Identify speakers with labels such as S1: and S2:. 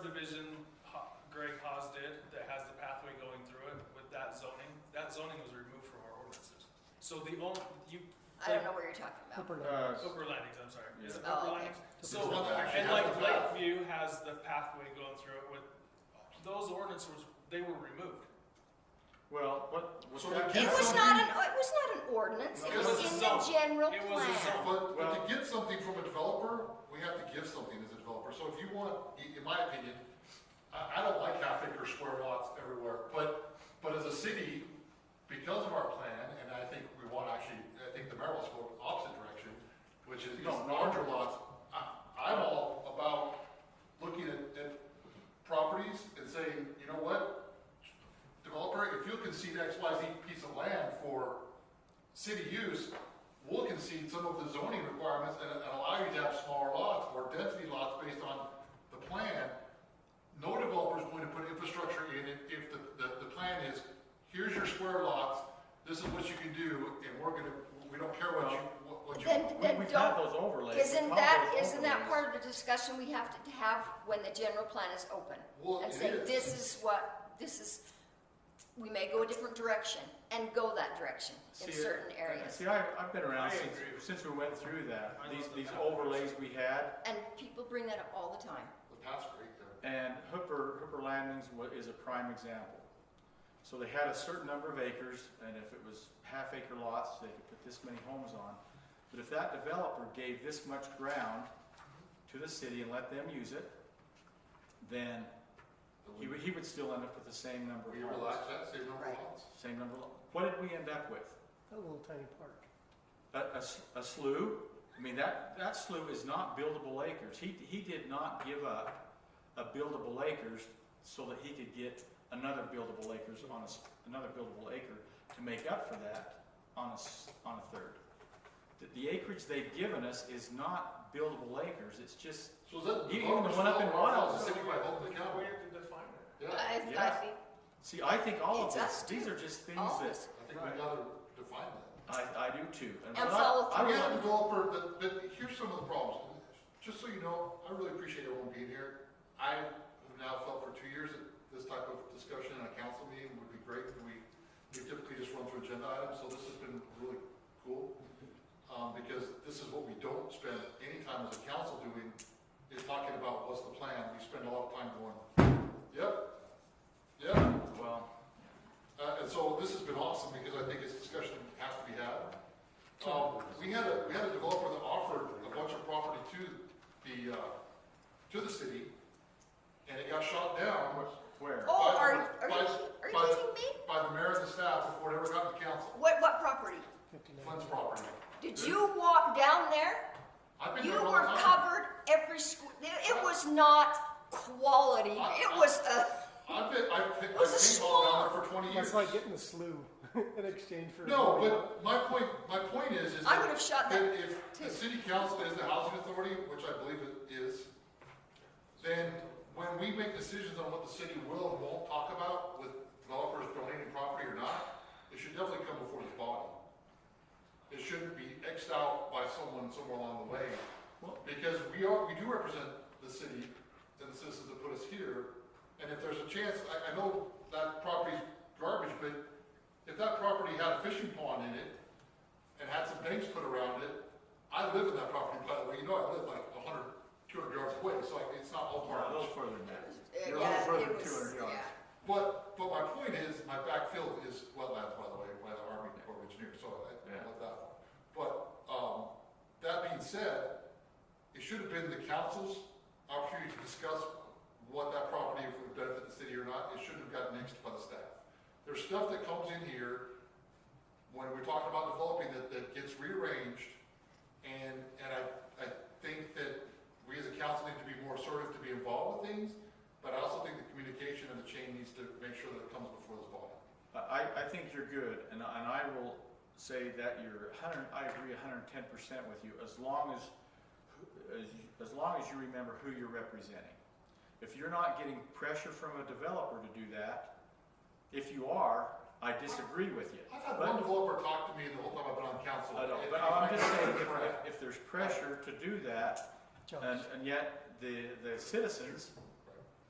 S1: subdivision Ho- Greg Haas did that has the pathway going through it with that zoning, that zoning was removed from our ordinances. So the only, you,
S2: I don't know what you're talking about.
S3: Upper
S4: Uh, s-
S1: upper landings, I'm sorry, is it
S2: Yeah. Oh,
S1: upper
S2: okay.
S1: landings? So,
S4: It's not actually
S1: and
S4: has
S1: like
S4: the path.
S1: Lakeview has the pathway going through it with, those ordinances, they were removed.
S4: Well, what, what
S5: So
S4: that-
S5: we
S2: It
S5: can't-
S2: was not an, it was not an ordinance, it
S5: It
S2: was
S5: was
S1: a
S2: in the
S1: zone.
S2: general
S1: It was a
S2: plan.
S1: zone.
S5: But, but to
S4: Well-
S5: get something from a developer, we have to give something as a developer. So if you want, i- in my opinion, I, I don't like half acre square lots everywhere, but, but as a city, because of our plan, and I think we want actually, I think the mayor wants to go the opposite direction, which is
S4: No, no.
S5: larger lots. I, I'm all about looking at, at properties and saying, you know what? Developer, if you concede X, Y, Z piece of land for city use, will concede some of the zoning requirements and, and allow you to have smaller lots or density lots based on the plan. No developer's going to put infrastructure in it if the, the, the plan is, here's your square lots, this is what you can do, and we're gonna, we don't care what you, what- what you.
S2: Then,
S4: we-
S2: then
S4: We've had
S2: don't,
S4: those overlays.
S2: isn't
S4: We've had
S2: that,
S4: those
S2: isn't that
S4: overlays.
S2: part of the discussion we have to have when the general plan is open?
S5: Well,
S2: And
S5: it
S2: say,
S5: is.
S2: this is what, this is, we may go a different direction, and go that direction in
S4: See,
S2: certain
S4: I-
S2: areas.
S4: See, I, I've been
S1: I
S4: around since,
S1: agree with
S4: since we went through that,
S1: I
S4: these,
S1: love the
S4: these
S1: pathways.
S4: overlays we had,
S2: And people bring that up all the time.
S5: The path's great there.
S4: and Hooper, Hooper Landings wa- is a prime example. So they had a certain number of acres, and if it was half acre lots, they could put this many homes on. But if that developer gave this much ground to the city and let them use it, then he would, he would still end up with the same number
S5: We
S4: of
S5: relax
S4: homes.
S5: that, same number of
S2: Right.
S5: lots.
S4: Same number of, lo- what did we end up with?
S3: that little tiny park.
S4: a, a s- a slough, I mean, that, that slough is not buildable acres. He, he did not give up a buildable acres so that he could get another buildable acres on a, s- another buildable acre to make up for that on a, s- on a third. The- The acreage they've given us is not buildable acres, it's just,
S5: So is that.
S4: You- you even went up in Wild.
S5: The city by holding the county.
S1: have to define it.
S5: Yeah, I
S2: I, I
S4: Yeah.
S2: think
S4: see, I think all of
S2: It's
S4: this,
S2: us
S4: these
S2: too.
S4: are just things
S2: all of
S4: that,
S2: us,
S5: think we gotta define that.
S4: I, I do too.
S2: And
S4: what I-
S2: follow
S4: I
S5: We
S4: would-
S5: have a developer, but, but here's some of the problems. Just so you know, I really appreciate everyone being here. I have now felt for two years that this type of discussion in a council meeting would be great. We, we typically just run through agenda items, so this has been really cool. Um, because this is what we don't spend any time as a council doing, is talking about what's the plan. We spend a lot of time going, yep, yep,
S4: Well,
S5: uh, and so this has been awesome because I think this discussion has to be had. Um, we had a, we had a developer that offered a bunch of property to the, uh, to the city and it got shot down
S4: where?
S2: oh,
S5: By-
S2: are, are you,
S5: by-
S2: ki- are you
S5: by-
S2: kidding me?
S5: by the mayor and the staff before it ever got to council,
S2: What, what property?
S3: Fifty-nine.
S5: Flynn's property.
S2: Did you walk down there?
S5: I've been
S2: You
S5: there all
S2: were
S5: the time.
S2: covered every squ- it- it was not quality, it was a,
S5: I've been, I've been, I've
S2: It was a
S5: been down there for twenty years.
S3: That's like getting the slough in exchange for.
S5: No, but my point, my point is, is.
S2: I would have shot that
S5: If the
S2: too.
S5: city council is the housing authority, which I believe it is, then when we make decisions on what the city will and won't talk about with developers donating property or not, it should definitely come before this body. It shouldn't be Xed out by someone somewhere along the way,
S4: Well-
S5: because we are, we do represent the city and the citizens that put us here, and if there's a chance, I, I know that property's garbage, but if that property had a fishing pond in it and had some banks put around it, I live in that property, by the way, you know, I live like a hundred, two hundred yards away, so like, it's not
S4: A
S5: all
S4: little
S5: garbage.
S4: further than that.
S2: yeah, it
S4: You're a
S2: was,
S4: little
S2: yeah.
S4: further than 200 yards.
S5: But, but my point is, my backfield is wetlands, by the way, by the Army Corps of Engineers, so I, I love that one. But, um, that being said, it should have been the council's opportunity to discuss what that property would benefit the city or not, it shouldn't have gotten nixed by the staff. There's stuff that comes in here, when we're talking about developing, that, that gets rearranged, and, and I, I think that we as a council need to be more assertive to be involved with things, but I also think the communication and the chain needs to make sure that it comes before this body.
S4: I, I think you're good, and, and I will say that you're hundred, I agree hundred and ten percent with you, as long as, who- as, you- as long as you remember who you're representing. If you're not getting pressure from a developer to do that, if you are, I disagree with you.
S5: I've had
S4: But-
S5: one developer talk to me the whole time I've been on council.
S4: I don't,
S5: and-
S4: but
S5: and
S4: I'm
S5: my-
S4: just saying, if, if- if there's pressure to do that,
S3: Jobs.
S4: and, and yet the, the citizens